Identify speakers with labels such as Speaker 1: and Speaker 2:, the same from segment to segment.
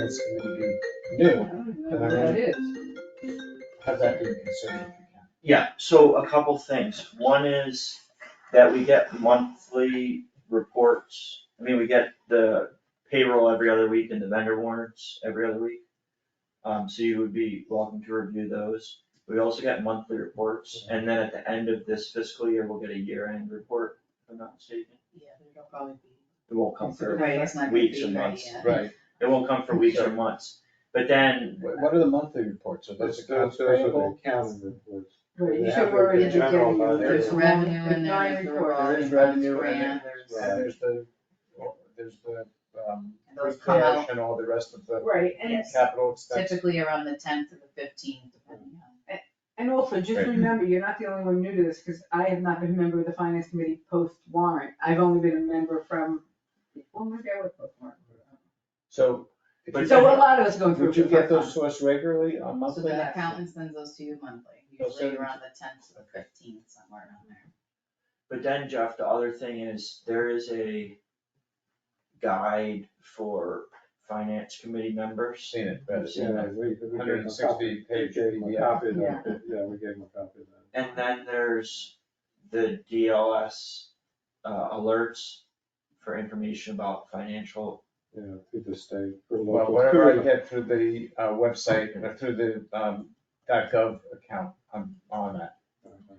Speaker 1: That's really good.
Speaker 2: do,
Speaker 1: Uh,
Speaker 2: It have that be considered.
Speaker 3: Yeah, so a couple things. One is that we get monthly reports. I mean, we get the payroll every other week and the vendor warrants every other week. Um, so you would be welcome to review those. We also get monthly reports, and then at the end of this fiscal year, we'll get a year-end report, if I'm not mistaken.
Speaker 4: Yeah, there'll probably be.
Speaker 3: It won't come for,
Speaker 4: Right, it's not gonna
Speaker 3: weeks
Speaker 4: be
Speaker 3: and
Speaker 4: right
Speaker 3: months.
Speaker 4: yet.
Speaker 2: Right,
Speaker 3: it won't come for weeks or months. But then,
Speaker 2: what what are the monthly reports, are those
Speaker 5: That's,
Speaker 2: accounts
Speaker 5: that's, that's
Speaker 2: payable?
Speaker 5: what the accounting reports.
Speaker 6: Right, you
Speaker 5: They
Speaker 6: should
Speaker 5: have
Speaker 6: worry
Speaker 5: the
Speaker 6: at the
Speaker 5: general
Speaker 6: beginning,
Speaker 5: fund.
Speaker 6: there's
Speaker 4: There's
Speaker 6: one,
Speaker 4: revenue
Speaker 6: there's
Speaker 4: and
Speaker 6: nine
Speaker 4: there's the
Speaker 6: reports.
Speaker 4: revolving
Speaker 2: There is
Speaker 4: funds
Speaker 2: revenue and
Speaker 4: grant, there's-
Speaker 2: And there's the, there's the, um,
Speaker 4: And those come
Speaker 2: repairs
Speaker 4: out
Speaker 2: and all the rest of the
Speaker 6: Right, and,
Speaker 4: Yes.
Speaker 2: capital expenses.
Speaker 4: typically around the tenth to the fifteenth, depending on.
Speaker 6: and also just
Speaker 2: Right.
Speaker 6: remember, you're not the only one new to this, because I have not been a member of the finance committee post warrant. I've only been a member from, when was I with post warrant?
Speaker 2: So. if
Speaker 3: But
Speaker 2: you-
Speaker 6: So a lot of us go through.
Speaker 2: Would you
Speaker 6: before
Speaker 2: get those
Speaker 6: time.
Speaker 2: to us regularly on
Speaker 4: So
Speaker 2: monthly?
Speaker 4: the accountant sends those to you monthly,
Speaker 2: They'll send
Speaker 4: usually
Speaker 2: them
Speaker 4: around the tenth to the fifteenth, somewhere around there.
Speaker 3: but then Jeff, the other thing is, there is a guide for finance committee members.
Speaker 2: Seen it, but.
Speaker 5: Yeah, we, we gave them a
Speaker 2: 160
Speaker 5: copy. We
Speaker 2: page
Speaker 5: gave them a
Speaker 2: PDF.
Speaker 5: copy of that.
Speaker 6: Yeah.
Speaker 5: Yeah, we gave them a copy of that.
Speaker 3: And then there's the DLS uh, alerts for information about financial,
Speaker 5: Yeah, through the state, for
Speaker 2: Well,
Speaker 5: local.
Speaker 2: whatever I get through the uh, website, uh, through the um, .gov account, I'm on that.
Speaker 6: Uh-huh.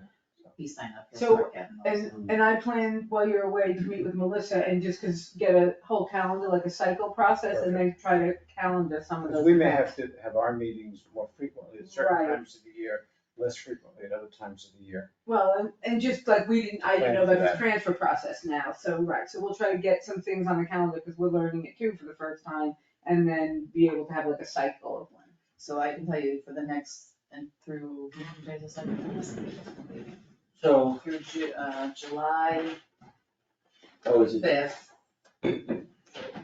Speaker 4: You sign up, you'll
Speaker 6: So,
Speaker 4: start getting those.
Speaker 6: And, and I plan while you're away to meet with Melissa and just 'cause get a whole calendar, like a cycle process, and then try to calendar some of
Speaker 2: Because
Speaker 6: those.
Speaker 2: we may
Speaker 6: events.
Speaker 2: have to have our meetings more frequently at certain
Speaker 6: Right.
Speaker 2: times of the year, less frequently at other times of the year.
Speaker 6: Well, and, and just like we didn't, I didn't know
Speaker 2: Plan for
Speaker 6: about
Speaker 2: that.
Speaker 6: the transfer process now, so, right, so we'll try to get some things on the calendar, cause we're learning it too for the first time, and then be able to have like a cycle of when.
Speaker 4: So I can tell you for the next, and through, how many days is that? Through
Speaker 3: so,
Speaker 4: Ju- uh, July
Speaker 3: oh, is it,
Speaker 4: fifth.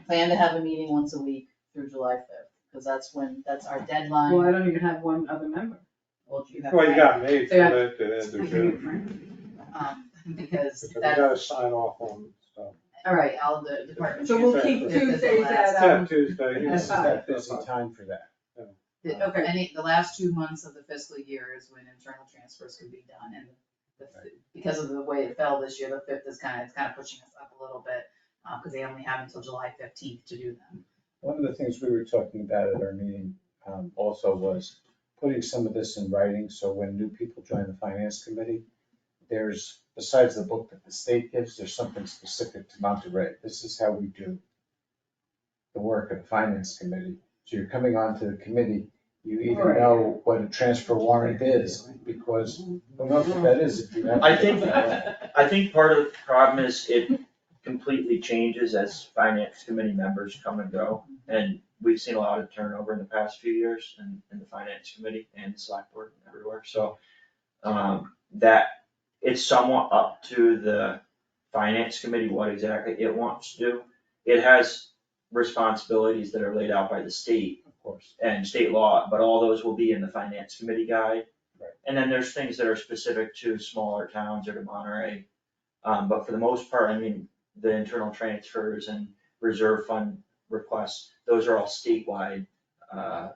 Speaker 4: Plan to have a meeting once a week through July fifth, because that's when, that's our
Speaker 6: Well,
Speaker 4: deadline.
Speaker 6: I don't even have one other member.
Speaker 4: Well, you have
Speaker 5: Well, you
Speaker 4: that,
Speaker 5: got me for
Speaker 6: Yeah.
Speaker 5: that, to end
Speaker 6: I
Speaker 5: the
Speaker 6: can meet
Speaker 5: show.
Speaker 6: Frank.
Speaker 4: um, Because
Speaker 5: Because we gotta
Speaker 4: that's,
Speaker 5: sign off on stuff.
Speaker 4: all right, all the department.
Speaker 6: So we'll
Speaker 4: chairs.
Speaker 6: keep
Speaker 4: Fifth is the
Speaker 6: Tuesdays
Speaker 4: last-
Speaker 6: at,
Speaker 5: Yeah,
Speaker 6: um,
Speaker 5: Tuesday.
Speaker 2: And this is
Speaker 6: fine.
Speaker 2: that busy time for that.
Speaker 4: the-
Speaker 6: Okay.
Speaker 4: Any, the last two months of the fiscal year is when internal transfers can be done, and the, because of the way it fell this year, the fifth is kind of, it's kind of pushing us up a little bit, uh, because they only have until July fifteenth to do them.
Speaker 2: One of the things we were talking about at our meeting um, also was putting some of this in writing, so when new people join the finance committee, there's, besides the book that the state gives, there's something specific to Monterey. This is how we do the work of the finance committee. So you're coming onto the committee, you even
Speaker 6: Right.
Speaker 2: know what a transfer warrant is, because who knows what that is if you have.
Speaker 3: I think- I think part of the problem is it completely changes as finance committee members come and go. And we've seen a lot of turnover in the past few years in, in the finance committee and the select board and everywhere, so. Um, that, it's somewhat up to the finance committee what exactly it wants to do. It has responsibilities that are laid out by the state
Speaker 2: Of course.
Speaker 3: and state law, but all those will be in the finance committee guide.
Speaker 2: Right.
Speaker 3: And then there's things that are specific to smaller towns or to Monterey. Um, but for the most part, I mean, the internal transfers and reserve fund requests, those are all statewide, uh,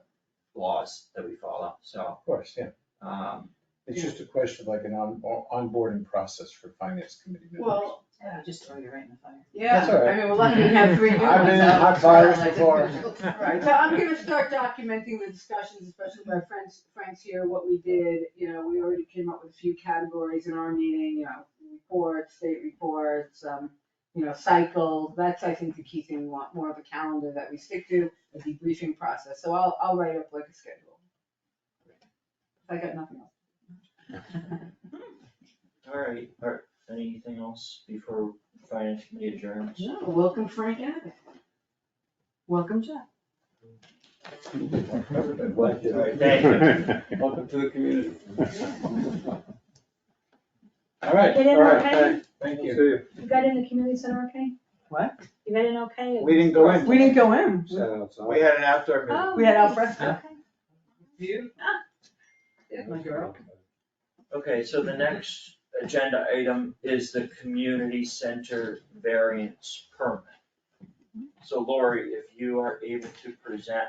Speaker 3: laws that we follow, so,
Speaker 2: Of course, yeah.
Speaker 3: um,
Speaker 2: It's just a question of like an on, onboarding process for finance committee members.
Speaker 6: well,
Speaker 4: Yeah, just throw you right in the fire.
Speaker 6: yeah,
Speaker 2: That's all right.
Speaker 6: I mean, we're lucky we have three new
Speaker 2: I've been in
Speaker 6: ones out.
Speaker 2: hot fires before.
Speaker 6: Right, so I'm gonna start documenting the discussions, especially by Frank's, Frank's here, what we did, you know, we already came up with a few categories in our meeting, you know, reports, state reports, um, you know, cycles, that's, I think, the key thing, we want more of a calendar that we stick to, a debriefing process, so I'll, I'll write up like a schedule. I got nothing else.
Speaker 3: all right, all right, anything else before finance committee adjourns?
Speaker 6: No, welcome Frank Abbott. Welcome Jeff.
Speaker 2: Thank you. Welcome to the community. All right,
Speaker 7: Get in
Speaker 5: All right,
Speaker 7: okay?
Speaker 5: thanks.
Speaker 2: thank
Speaker 5: See
Speaker 2: you.
Speaker 5: you.
Speaker 7: You got in the community center okay?
Speaker 8: What?
Speaker 7: You got in okay?
Speaker 2: We didn't go in.
Speaker 8: We didn't go in.
Speaker 5: Set outside.
Speaker 2: We had an outdoor meeting.
Speaker 8: We had al fresco.
Speaker 7: Oh, Okay.
Speaker 4: You? Ah.
Speaker 8: My girl.
Speaker 3: Okay, so the next agenda item is the community center variance permit. So Lori, if you are able to present